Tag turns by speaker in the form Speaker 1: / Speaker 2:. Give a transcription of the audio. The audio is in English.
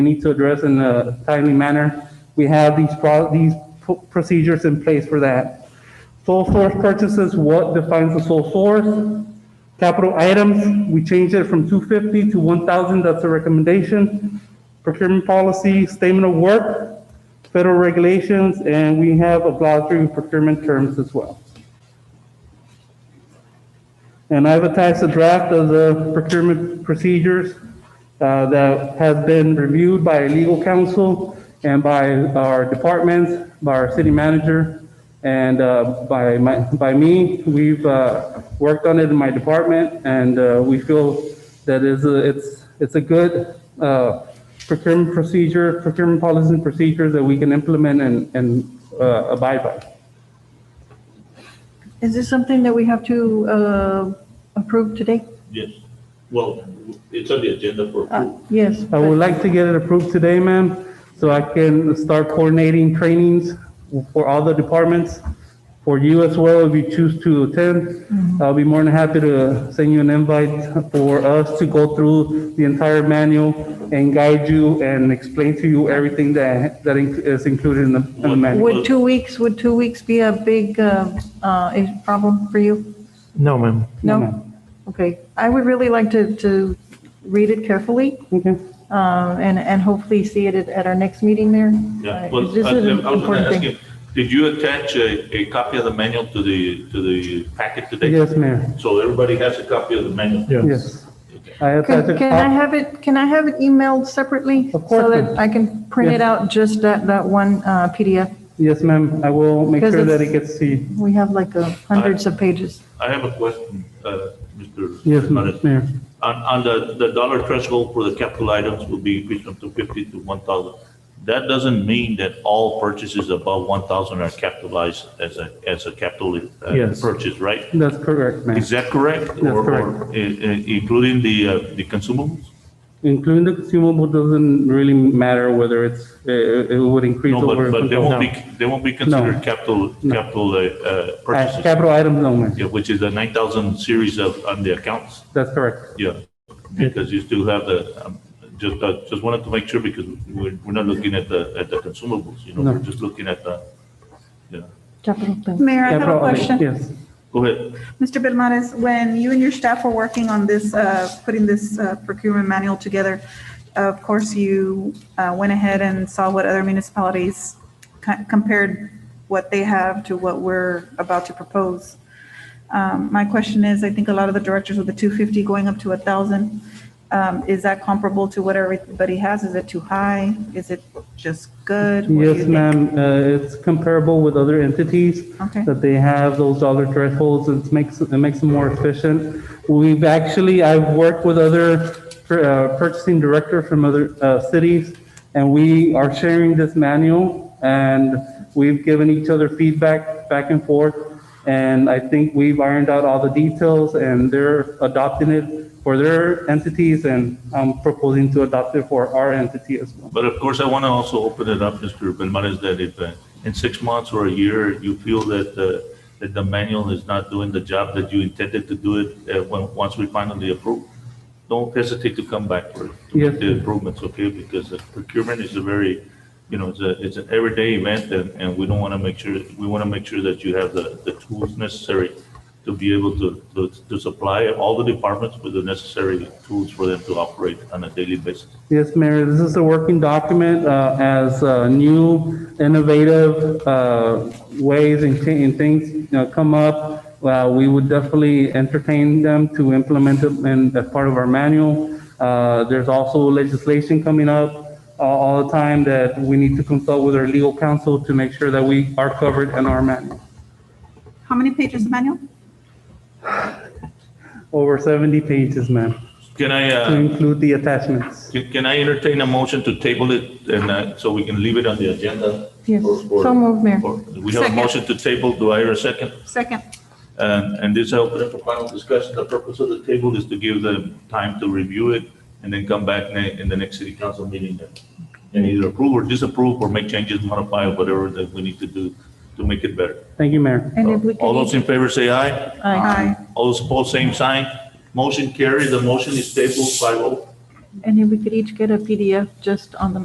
Speaker 1: we need to address in a timely manner. We have these, pro- these p- procedures in place for that. Sole source purchases, what defines the sole source? Capital items, we changed it from 250 to 1,000, that's a recommendation. Procurement policy, statement of work, federal regulations, and we have a glossary of procurement terms as well. And I've attached a draft of the procurement procedures uh, that has been reviewed by legal counsel and by our departments, by our city manager, and uh, by my, by me. We've uh, worked on it in my department, and uh, we feel that is a- it's, it's a good uh, procurement procedure, procurement policies and procedures that we can implement and, and uh, abide by.
Speaker 2: Is this something that we have to uh, approve today?
Speaker 3: Yes, well, it's on the agenda for
Speaker 2: Uh,
Speaker 3: approval.
Speaker 2: Yes.
Speaker 1: I would like to get it approved today, ma'am, so I can start coordinating trainings for all the departments, for you as well, if you choose to
Speaker 2: Mm-hmm.
Speaker 1: attend. I'll be more than happy to send you an invite for us to go through the entire manual and guide you and explain to you everything that, that in- is included in the in the
Speaker 2: but
Speaker 1: manual.
Speaker 2: Would two weeks, would two weeks be a big uh, uh, is- problem for you?
Speaker 4: No, ma'am.
Speaker 1: No,
Speaker 2: No?
Speaker 1: ma'am.
Speaker 2: Okay. I would really like to, to read it carefully
Speaker 1: Okay,
Speaker 2: uh, and, and hopefully see it at- at our next meeting there.
Speaker 3: Yeah,
Speaker 2: Uh,
Speaker 3: well,
Speaker 2: This
Speaker 3: I
Speaker 2: is an
Speaker 3: I was gonna
Speaker 2: important
Speaker 3: ask
Speaker 2: thing.
Speaker 3: you, did you attach a, a copy of the manual to the, to the packet today?
Speaker 1: yes, Mayor,
Speaker 3: So everybody has a copy of the manual?
Speaker 1: yes.
Speaker 3: Okay.
Speaker 1: I have
Speaker 2: Can
Speaker 1: to.
Speaker 2: can I have it, can I have it emailed separately?
Speaker 1: Of course,
Speaker 2: So
Speaker 1: ma'am.
Speaker 2: that I can print it out, just that, that one uh, PDF?
Speaker 1: Yes, ma'am, I will make
Speaker 2: Because
Speaker 1: sure that it
Speaker 2: it's-
Speaker 1: gets to you.
Speaker 2: We have like uh, hundreds of pages.
Speaker 3: I have a question, uh, Mr.
Speaker 1: Yes, ma'am,
Speaker 3: Hernandez.
Speaker 1: Mayor.
Speaker 3: On, on the, the dollar threshold for the capital items will be increased from two fifty to one thousand. That doesn't mean that all purchases above one thousand are capitalized as a, as a capital uh,
Speaker 4: Yes.
Speaker 3: purchase, right?
Speaker 1: That's correct, ma'am.
Speaker 3: Is that correct? Or-
Speaker 1: correct.
Speaker 3: or, uh, uh, Including the, uh, the consumables?
Speaker 1: Including the consumable doesn't really matter whether it's, uh, it, it would increase
Speaker 3: No,
Speaker 1: over.
Speaker 3: but, but they won't be, they won't be considered
Speaker 1: No.
Speaker 3: capital, capital uh, uh,
Speaker 1: Uh,
Speaker 3: purchases,
Speaker 1: Capital items, no, ma'am.
Speaker 3: yeah, which is the nine thousand series of, on the accounts,
Speaker 1: That's correct.
Speaker 3: yeah. Because you still have the, um, just, uh, just wanted to make sure because we're, we're not looking at the, at the consumables, you know,
Speaker 1: No.
Speaker 3: we're just looking at the, yeah.
Speaker 2: Capital thing.
Speaker 3: Mm.
Speaker 5: Mayor, I have a
Speaker 1: Capital item,
Speaker 5: question.
Speaker 1: Yes.
Speaker 3: Go ahead.
Speaker 5: Mr. Belmontes, when you and your staff were working on this, uh, putting this uh, procurement manual together, of course, you uh, went ahead and saw what other municipalities co- compared what they have to what we're about to propose. Um, My question is, I think a lot of the directors with the 250 going up to 1,000, um, is that comparable to what everybody has? Is it too high? Is it just good? What do you
Speaker 1: Yes,
Speaker 5: think?
Speaker 1: ma'am, uh, it's comparable with other entities.
Speaker 5: Okay.
Speaker 1: That they have those dollar thresholds, it makes, it makes them more efficient. We've actually, I've worked with other uh, purchasing director from other uh, cities, and we are sharing this manual, and we've given each other feedback back and forth, and I think we've ironed out all the details, and they're adopting it for their entities, and I'm proposing to adopt it for our entity as well.
Speaker 3: But of course, I want to also open it up, Mr. Benmares, that if uh, in six months or a year, you feel that, uh, that the manual is not doing the job that you intended to do it, uh, when, once we finally approve, don't hesitate to come back for, to
Speaker 1: Yes.
Speaker 3: make the improvements, okay? Because uh, procurement is a very, you know, it's a, it's an everyday event and, and we don't want to make sure, we want to make sure that you have the, the tools necessary to be able to, to, to supply all the departments with the necessary tools for them to operate on a daily basis.
Speaker 1: Yes, Mayor, this is a working document uh, as uh, new innovative uh, ways and thi- and things, you know, come up. uh, We would definitely entertain them to implement them in- as part of our manual. Uh, There's also legislation coming up uh, all the time that we need to consult with our legal counsel to make sure that we are covered in our manual.
Speaker 5: How many pages of manual?
Speaker 1: Over 70 pages, ma'am,
Speaker 3: Can I, uh?
Speaker 1: to include the attachments.
Speaker 3: Can can I entertain a motion to table it and uh, so we can leave it on the agenda?
Speaker 2: Yes.
Speaker 3: for- for-
Speaker 2: So moved, Mayor.
Speaker 3: for- We have a
Speaker 5: Second.
Speaker 3: motion to table. Do I hear a second?
Speaker 5: Second.
Speaker 3: And and this is open for final discussion. The purpose of the table is to give them time to review it and then come back ne- in the next city council meeting and- and either approve or disapprove or make changes, modify, whatever that we need to do to make it better.
Speaker 1: Thank you, Mayor.
Speaker 2: And if we
Speaker 3: All
Speaker 2: can,
Speaker 3: those in favor say aye.
Speaker 2: Aye.
Speaker 5: Aye.
Speaker 3: All those opposed, same sign. Motion carried. The motion is tabled oh. 5-0.
Speaker 2: And if we could each get a PDF just on the